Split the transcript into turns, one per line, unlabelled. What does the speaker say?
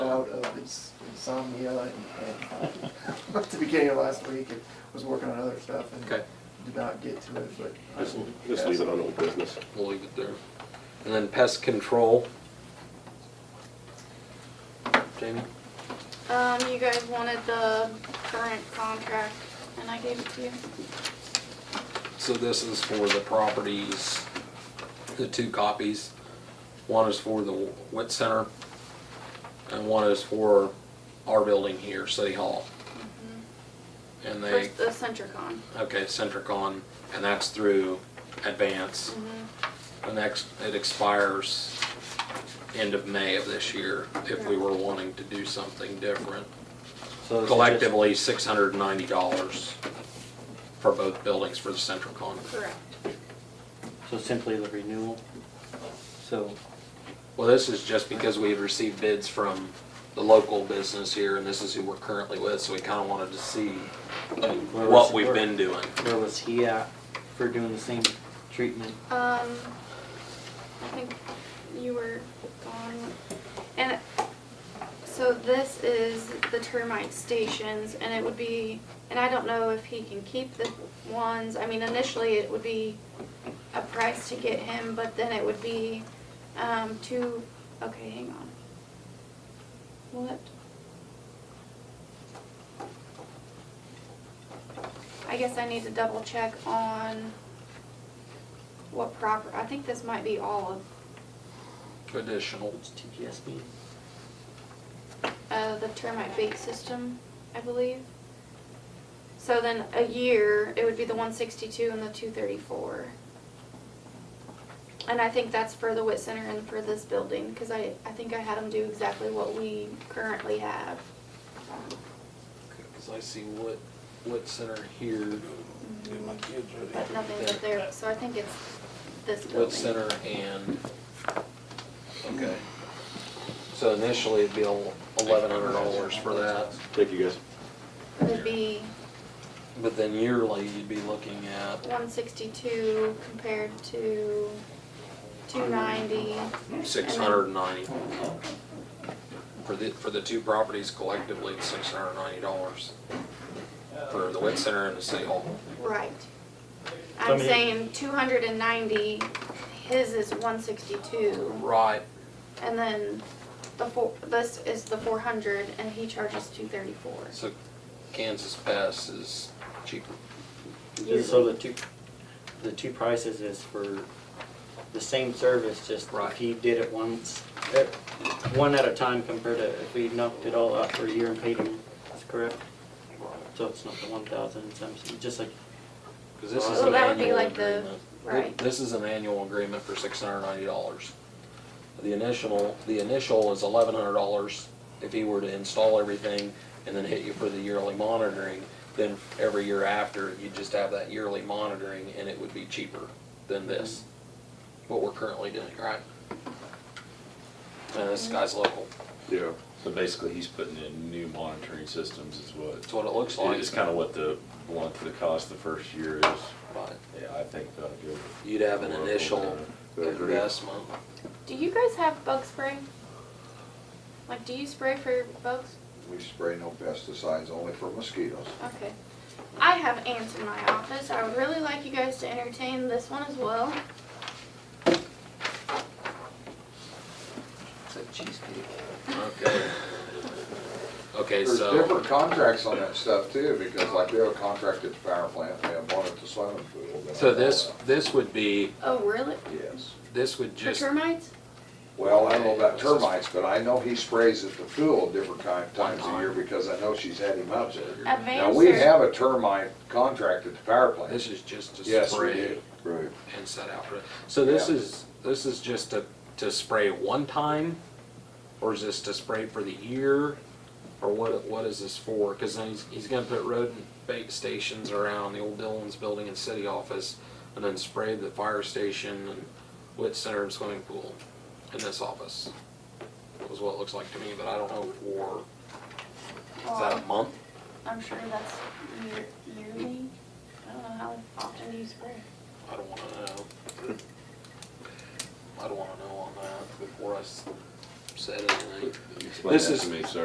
his insomnia and, and at the beginning of last week, and was working on other stuff and
Okay.
did not get to it, but. I
Just,
will
just
pass
leave it on old business.
We'll leave it there. And then pest control. Jamie?
Um, you guys wanted the current contract, and I gave it to you.
So this is for the properties, the two copies. One is for the wit center and one is for our building here, City Hall. And they,
First, the Centricon.
okay, Centricon, and that's through Advance. The next, it expires end of May of this year if we were wanting to do something different.
So it's just-
Collectively, six hundred and ninety dollars for both buildings for the central con.
Correct.
So simply the renewal. So,
Well, this is just because we had received bids from the local business here, and this is who we're currently with, so we kinda wanted to see
where was-
what we've been doing.
Where was he at for doing the same treatment?
Um, I think you were gone. And so this is the termite stations, and it would be, and I don't know if he can keep the ones. I mean, initially it would be a price to get him, but then it would be, um, two, okay, hang on. What? I guess I need to double check on what proper, I think this might be all of,
Additional,
What's TPS mean?
uh, the termite bait system, I believe. So then a year, it would be the one sixty-two and the two thirty-four. And I think that's for the wit center and for this building, cause I, I think I had them do exactly what we currently have.
cause I see what, what center here,
But nothing up there, so I think it's this building.
what center and, okay. So initially it'd be eleven hundred dollars for that,
Thank you, guys.
It'd be
but then yearly you'd be looking at
one sixty-two compared to two ninety.
Six hundred and ninety. For the, for the two properties collectively, it's six hundred and ninety dollars. For the wet center and the city hall.
Right.
I
I'm
mean-
saying two hundred and ninety, his is one sixty-two,
Right.
and then the four, this is the four hundred, and he charges two thirty-four.
So Kansas Pass is cheaper.
So the two, the two prices is for the same service, just
Right.
if he did it once, eh, one at a time compared to if we knocked it all out for a year and paid him, that's correct? So it's not the one thousand and something, just like,
Cause this is
Well,
an
that would be
annual
like the-
agreement.
Right.
This is an annual agreement for six hundred and ninety dollars. The initial, the initial is eleven hundred dollars if he were to install everything and then hit you for the yearly monitoring. Then every year after, you'd just have that yearly monitoring and it would be cheaper than this, what we're currently doing, right? And this guy's local,
Yeah.
So basically, he's putting in new monitoring systems is what,
that's what it looks like.
it's kind of what the blunt for the cost the first year is.
But
Yeah, I think that'll go.
You'd have an initial
I agree.
investment.
Do you guys have bug spray? Like, do you spray for bugs?
We spray no pesticides, only for mosquitoes.
Okay. I have ants in my office, I would really like you guys to entertain this one as well.
It's a cheesecake.
Okay. Okay,
There's
so.
different contracts on that stuff too, because like we have a contract at the power plant, we have one at the swimming pool. we
So
have
this,
one
this would be,
Oh, really?
at- Yes.
this would
For
just,
termites?
Well, I don't know about termites, but I know he sprays at the pool different kind, times a year because I know she's had him up there. Now,
Advanced
we
or-
have a termite contract at the power
this
plant.
is just to
Yes, we
spray
do. Right.
and set out. for it. So this
Yeah.
is, this is just to, to spray one time? Or is this to spray for the year? Or what, what is this for? Cause then he's, he's gonna put rodent bait stations around the old Dillon's building and city office and then spray the fire station and wit center and swimming pool in this office. Is what it looks like to me, but I don't know for, is that a month?
I'm sure that's year- yearly. I don't know how often you spray.
I don't wanna know. I don't wanna know on that before I s- said anything.
Explain
This
that
is-
to me, sir.